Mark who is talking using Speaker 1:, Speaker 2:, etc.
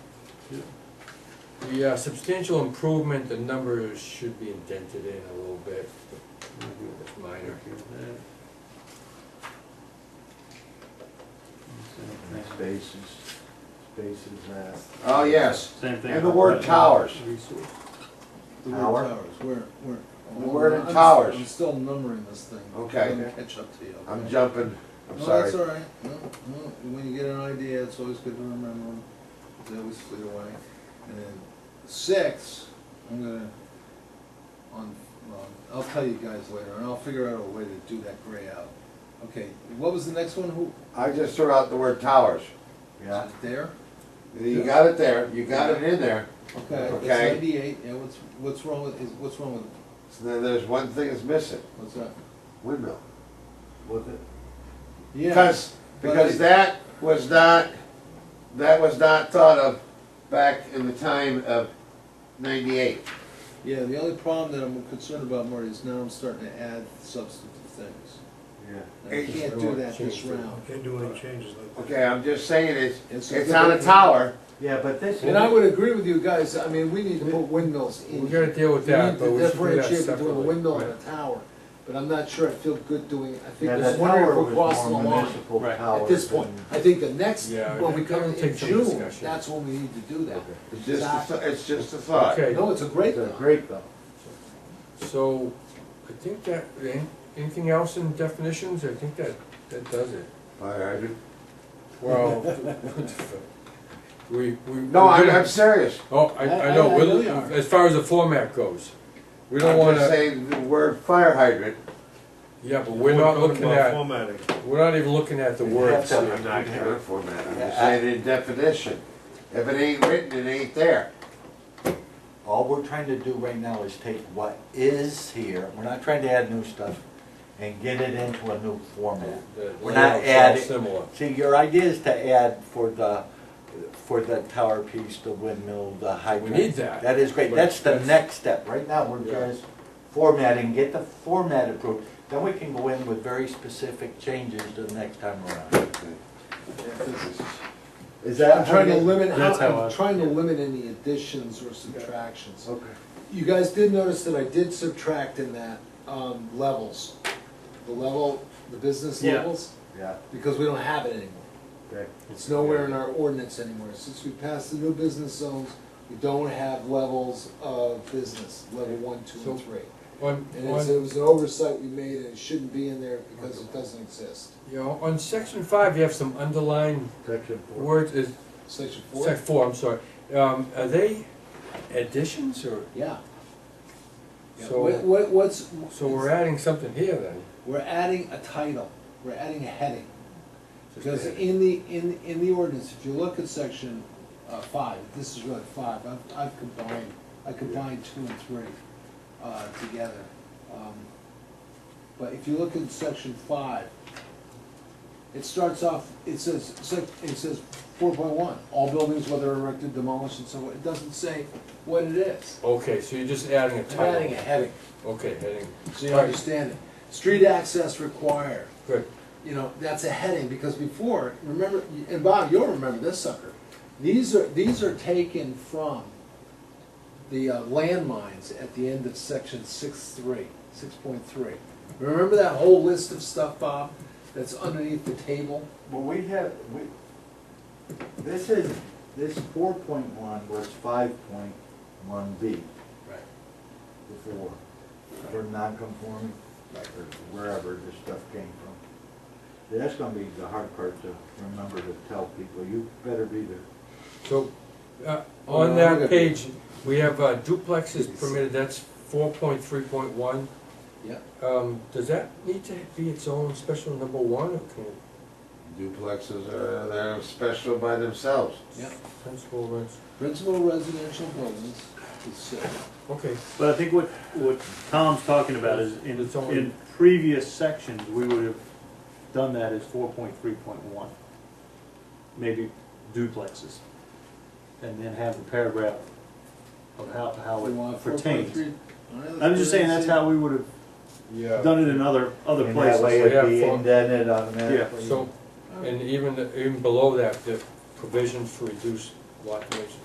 Speaker 1: The uh, substantial improvement, the numbers should be indented in a little bit, it's minor.
Speaker 2: Spaces, spaces last.
Speaker 3: Oh, yes,
Speaker 4: Same thing.
Speaker 3: and the word towers.
Speaker 4: Resource.
Speaker 5: The word
Speaker 3: Tower?
Speaker 5: towers, where, where?
Speaker 3: The word
Speaker 5: I'm-
Speaker 3: in towers.
Speaker 5: I'm still numbering this thing.
Speaker 3: Okay.
Speaker 5: I'm gonna catch up to you.
Speaker 3: I'm
Speaker 5: okay?
Speaker 3: jumping, I'm
Speaker 5: No,
Speaker 3: sorry.
Speaker 5: that's all right. No, no, when you get an idea, it's always good to remember them. They always flee away. And then six, I'm gonna, on, well, I'll tell you guys later, and I'll figure out a way to do that gray out. Okay, what was the next one? Who?
Speaker 3: I just threw out the word towers.
Speaker 2: Yeah,
Speaker 5: is it There?
Speaker 3: You got it there, you got it in there.
Speaker 5: Okay, it's
Speaker 3: Okay.
Speaker 5: ninety-eight, yeah, what's, what's wrong with, is, what's wrong with,
Speaker 3: So then there's one thing that's missing,
Speaker 5: what's that?
Speaker 3: windmill.
Speaker 2: was it?
Speaker 5: Yeah.
Speaker 3: Because, because that was not, that was not thought of back in the time of ninety-eight.
Speaker 5: Yeah, the only problem that I'm concerned about, Marty, is now I'm starting to add substantive things.
Speaker 2: Yeah.
Speaker 5: And I can't do that this round.
Speaker 6: Can't do any changes like that.
Speaker 3: Okay, I'm just saying it's,
Speaker 5: It's-
Speaker 3: it's on a tower.
Speaker 2: Yeah, but this.
Speaker 5: And I would agree with you guys, I mean, we need to put windmills in.
Speaker 1: We gotta deal with
Speaker 5: We
Speaker 1: that,
Speaker 5: need
Speaker 1: but
Speaker 5: to
Speaker 1: we should do that
Speaker 5: differentiate between a
Speaker 1: separately,
Speaker 5: windmill and
Speaker 1: right.
Speaker 5: a tower, but I'm not sure I feel good doing, I think
Speaker 2: Yeah,
Speaker 5: this
Speaker 2: that
Speaker 5: is wondering
Speaker 2: tower
Speaker 5: if we're
Speaker 2: was
Speaker 5: crossing the
Speaker 2: more
Speaker 5: line
Speaker 2: municipal
Speaker 1: Right.
Speaker 2: power
Speaker 5: at this point.
Speaker 2: than-
Speaker 5: I think the next,
Speaker 1: Yeah,
Speaker 5: when we come
Speaker 1: that'll
Speaker 5: in
Speaker 1: take some
Speaker 5: June,
Speaker 1: discussion.
Speaker 5: that's when we need to do that.
Speaker 3: It's just, a th- it's just a thought.
Speaker 1: Okay,
Speaker 5: No, it's a great
Speaker 2: It's a
Speaker 5: thing.
Speaker 2: great though.
Speaker 1: so, I think that, an- anything else in definitions, I think that, that does it.
Speaker 3: Fire hydrant.
Speaker 1: Well, we, we.
Speaker 3: No,
Speaker 1: we're
Speaker 3: I'm,
Speaker 1: gonna-
Speaker 3: I'm serious.
Speaker 1: Oh, I, I know,
Speaker 5: I- I
Speaker 1: we'll-
Speaker 5: really are.
Speaker 1: as far as the format goes, we don't
Speaker 3: I'm just
Speaker 1: wanna,
Speaker 3: saying the word fire hydrant.
Speaker 1: yeah, but we're not
Speaker 6: talking
Speaker 1: looking
Speaker 6: about
Speaker 1: at,
Speaker 6: Formatting.
Speaker 1: we're not even looking at the words
Speaker 2: Yeah.
Speaker 1: here.
Speaker 3: not gonna format. I'm just saying in definition. If it ain't written, it ain't there.
Speaker 2: All we're trying to do right now is take what is here, we're not trying to add new stuff, and get it into a new format.
Speaker 1: The
Speaker 2: We're not
Speaker 1: layout's all
Speaker 2: adding.
Speaker 1: Similar.
Speaker 2: See, your idea is to add for the, for the tower piece, the windmill, the hydrant.
Speaker 1: need that.
Speaker 2: That is great,
Speaker 1: But
Speaker 2: that's the
Speaker 1: that's-
Speaker 2: next step, right now, we're
Speaker 1: Yeah.
Speaker 2: just formatting, get the format approved, then we can go in with very specific changes the next time around. Is that?
Speaker 5: I'm trying to limit,
Speaker 4: That's how I-
Speaker 5: I'm trying to limit any additions or subtractions.
Speaker 2: Okay.
Speaker 5: You guys did notice that I did subtract in that, um, levels, the level, the business
Speaker 4: Yeah.
Speaker 5: levels,
Speaker 2: Yeah,
Speaker 5: because we don't have it anymore.
Speaker 2: okay.
Speaker 5: It's nowhere in our ordinance anymore. Since we passed the new business zones, we don't have levels of business, level one, two, and
Speaker 1: So-
Speaker 5: three.
Speaker 1: On,
Speaker 5: And it's-
Speaker 1: on,
Speaker 5: it was an oversight we made, and it shouldn't be in there because it doesn't exist.
Speaker 1: you know, on section five, you have some underlined
Speaker 2: Section four.
Speaker 1: words, is,
Speaker 5: Section
Speaker 1: sec
Speaker 5: four?
Speaker 1: four, I'm sorry. Um, are they additions or,
Speaker 5: Yeah. Yeah,
Speaker 1: So-
Speaker 5: What, what- what's?
Speaker 1: so we're adding something here then?
Speaker 5: We're adding a title, we're adding a heading.
Speaker 1: Just
Speaker 5: Because
Speaker 1: adding.
Speaker 5: in the, in, in the ordinance, if you look at section, uh, five, this is really five, I've, I've combined, I combined two and three, uh, together. Um, But if you look at section five, it starts off, it says, sec- it says four point one, all buildings, whether erected, demolished, and so on, it doesn't say what it is.
Speaker 1: Okay, so you're just adding a
Speaker 5: I'm adding a
Speaker 1: title.
Speaker 5: heading,
Speaker 1: Okay, heading,
Speaker 5: so you understand it. Street access required
Speaker 1: good.
Speaker 5: you know, that's a heading, because before, remember, and Bob, you'll remember this sucker. These are, these are taken from the uh, landmines at the end of section six three, six point three. Remember that whole list of stuff, Bob, that's underneath the table?
Speaker 2: Well, we have, we, this is, this four point one was five point one B
Speaker 5: Right.
Speaker 2: before, for non-conforming, like, or wherever this stuff came from. That's gonna be the hard part to remember to tell people, you better be there.
Speaker 1: So, uh,
Speaker 5: Oh,
Speaker 1: on
Speaker 5: no, I
Speaker 1: that
Speaker 5: got
Speaker 1: page, we have uh, duplexes permitted, that's four point three point one.
Speaker 5: Yeah.
Speaker 1: Um, does that need to be its own special number one, or can it,
Speaker 3: Duplexes are, they're special by themselves.
Speaker 5: Yep.
Speaker 1: principal rents?
Speaker 5: Principal residential buildings is six.
Speaker 1: Okay,
Speaker 4: But I think what, what Tom's talking about is in,
Speaker 1: It's only-
Speaker 4: in previous sections, we would have done that as four point three point one. Maybe duplexes. And then have the paragraph of how, how
Speaker 5: We want
Speaker 4: it
Speaker 5: 4.3.
Speaker 4: pertains.
Speaker 5: All right, let's
Speaker 4: I'm just
Speaker 5: put it
Speaker 4: saying, that's
Speaker 5: in.
Speaker 4: how we would have
Speaker 1: yeah,
Speaker 4: done it in other, other
Speaker 2: And that way
Speaker 4: places.
Speaker 1: Yeah,
Speaker 2: it'd be
Speaker 1: for-
Speaker 2: indented automatically.
Speaker 1: so, and even, even below that, the provisions for reduced lot dimensions